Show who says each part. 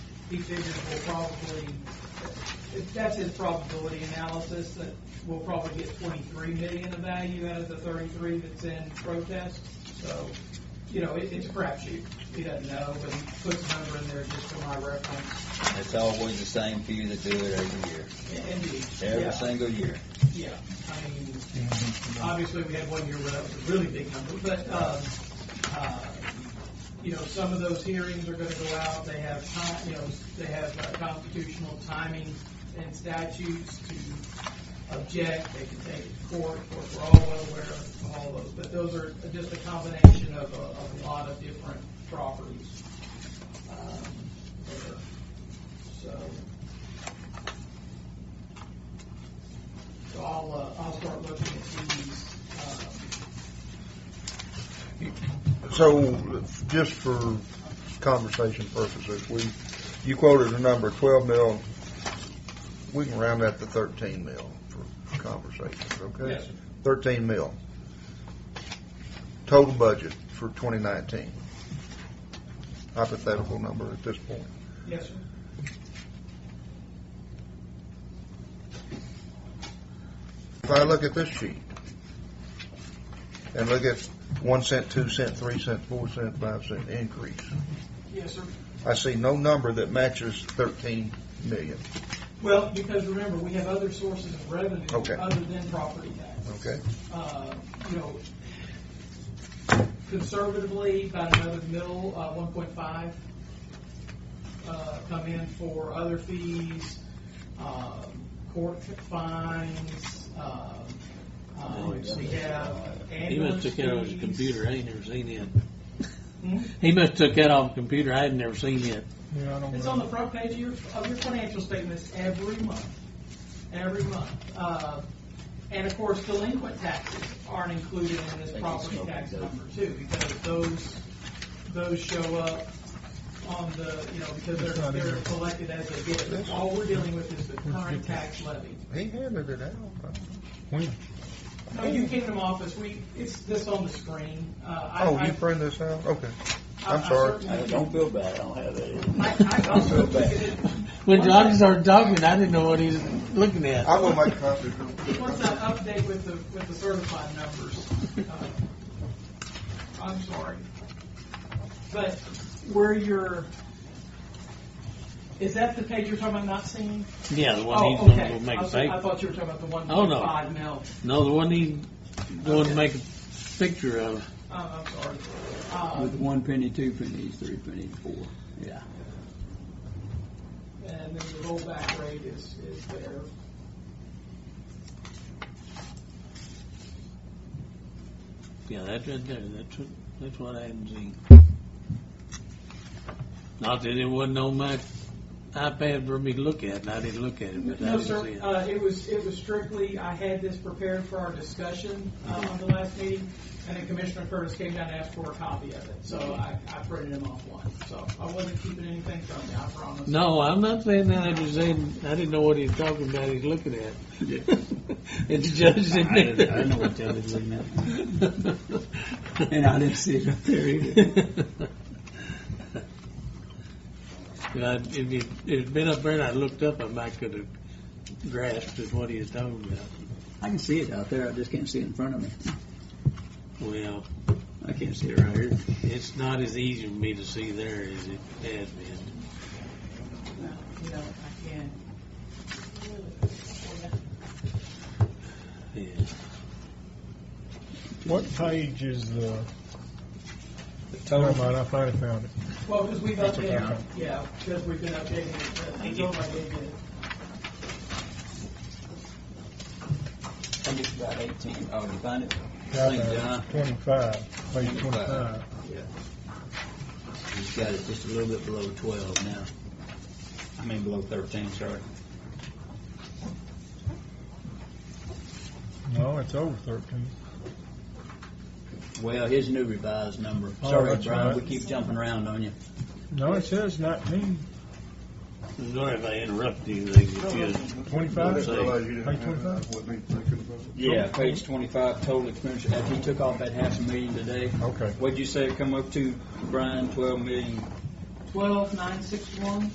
Speaker 1: he figures we'll probably, if that's his probability analysis, that we'll probably get twenty-three million of value out of the thirty-three that's in protest. So, you know, it, it's a crapshoot. He doesn't know, but he puts a number in there just for my reference.
Speaker 2: It's always the same few that do it every year,
Speaker 1: Indeed.
Speaker 2: every
Speaker 1: Yeah.
Speaker 2: single year.
Speaker 1: Yeah, I mean, obviously, we had one year where that was a really big number, but, um, uh, you know, some of those hearings are gonna go out, they have time, you know, they have uh, constitutional timing and statutes to object, they can take it to court, of course, we're all well aware of all those, but those are just a combination of, a- of a lot of different properties. um, there. So, So I'll, uh, I'll start looking at these, um,
Speaker 3: So, just for conversation purposes, we, you quoted a number, twelve mil, we can round that to thirteen mil for conversations, okay?
Speaker 1: Yes, sir.
Speaker 3: Thirteen mil. Total budget for twenty nineteen. Hypothetical number at this point.
Speaker 1: yes, sir.
Speaker 3: If I look at this sheet, and look at one cent, two cent, three cent, four cent, five cent increase,
Speaker 1: Yes, sir.
Speaker 3: I see no number that matches thirteen million,
Speaker 1: Well, because remember, we have other sources of revenue
Speaker 3: Okay.
Speaker 1: other than property tax.
Speaker 3: okay?
Speaker 1: Uh, you know, conservatively, about another mil, uh, one point five, uh, come in for other fees, um, court fines, um, um, we have
Speaker 4: Oh, He
Speaker 1: ambulance
Speaker 4: must took that off his
Speaker 1: fees.
Speaker 4: computer, I ain't never seen it.
Speaker 1: Hmm?
Speaker 4: He must took that off the computer, I had never seen it.
Speaker 1: It's on the front page of your, of your financial statements every month, every month. Uh, And of course, delinquent taxes aren't included in this property tax number too, because those, those show up on the, you know, because they're, they're collected as they get. All we're dealing with is the current tax levy.
Speaker 3: He handed it out.
Speaker 1: No, you came to my office, we, it's this on the screen. Uh, I-
Speaker 3: Oh,
Speaker 1: I-
Speaker 3: you print this out? Okay.
Speaker 1: I-
Speaker 3: I'm
Speaker 1: I
Speaker 3: sorry.
Speaker 1: certainly-
Speaker 2: feel bad, I Uh, don't have
Speaker 1: I, I
Speaker 2: that.
Speaker 1: also took it in-
Speaker 4: When Johnny started talking, I didn't know what he was looking at.
Speaker 3: I will make a copy.
Speaker 1: Once I update with the, with the certified numbers, uh, I'm sorry. But where you're, is that the page you're talking about not seeing?
Speaker 4: Yeah, the one
Speaker 1: Oh,
Speaker 4: he's gonna
Speaker 1: okay.
Speaker 4: go make
Speaker 1: I
Speaker 4: a
Speaker 1: was- I
Speaker 4: paper.
Speaker 1: thought you were talking about the one
Speaker 4: Oh,
Speaker 1: point
Speaker 4: no.
Speaker 1: five mil.
Speaker 4: No, the one he's going to make a picture of.
Speaker 1: Uh, I'm sorry. Uh,
Speaker 5: With one penny, two pennies, three pennies, four.
Speaker 4: Yeah.
Speaker 1: And then the rollback rate is, is there.
Speaker 4: Yeah, that's right there, that's what, that's what I hadn't seen. Not that it wasn't on my iPad for me to look at, and I didn't look at it, but I
Speaker 1: No,
Speaker 4: didn't see
Speaker 1: sir,
Speaker 4: it.
Speaker 1: uh, it was, it was strictly, I had this prepared for our discussion, uh, on the last meeting, and then Commissioner Curtis came down and asked for a copy of it, so I, I printed him off one, so I wasn't keeping anything from you, I promise.
Speaker 4: No, I'm not saying that. I just saying I didn't know what he was talking about. He's looking at. and the judge didn't.
Speaker 5: I didn't- I didn't know what the other was looking
Speaker 4: at.
Speaker 5: And I didn't see it up there either.
Speaker 4: if, it, if it'd been up there and I looked up, I might could have grasped at what he was talking about.
Speaker 5: I can see it out there, I just can't see it in front of me.
Speaker 4: Well,
Speaker 5: I can't see it right here.
Speaker 4: it's not as easy for me to see there as it has been.
Speaker 1: No, You know, I can.
Speaker 4: Yeah.
Speaker 6: What page is the? Never mind, I finally found it.
Speaker 1: Well, because we've
Speaker 6: That's okay.
Speaker 1: updated, yeah, because we've been updating it, but I told him I gave you
Speaker 5: I think it's about eighteen. Oh, you find it?
Speaker 6: Got
Speaker 5: Thank
Speaker 6: that.
Speaker 5: God.
Speaker 6: Twenty-five, page twenty-five.
Speaker 2: He's got it just a little bit below twelve now. I mean, below thirteen, sorry.
Speaker 6: No, it's over thirteen.
Speaker 2: Well, his new revised number.
Speaker 6: Oh,
Speaker 2: Sorry,
Speaker 6: that's
Speaker 2: Brian,
Speaker 6: right.
Speaker 2: we keep jumping around on you.
Speaker 6: No, it says nineteen,
Speaker 4: Sorry if I interrupted you. If you
Speaker 6: twenty-five.
Speaker 4: Page
Speaker 2: Yeah, page twenty-five, total expenditure, after he took off that half a million today,
Speaker 6: Okay.
Speaker 2: what'd you say it come up to, Brian, twelve million?
Speaker 1: twelve nine six one.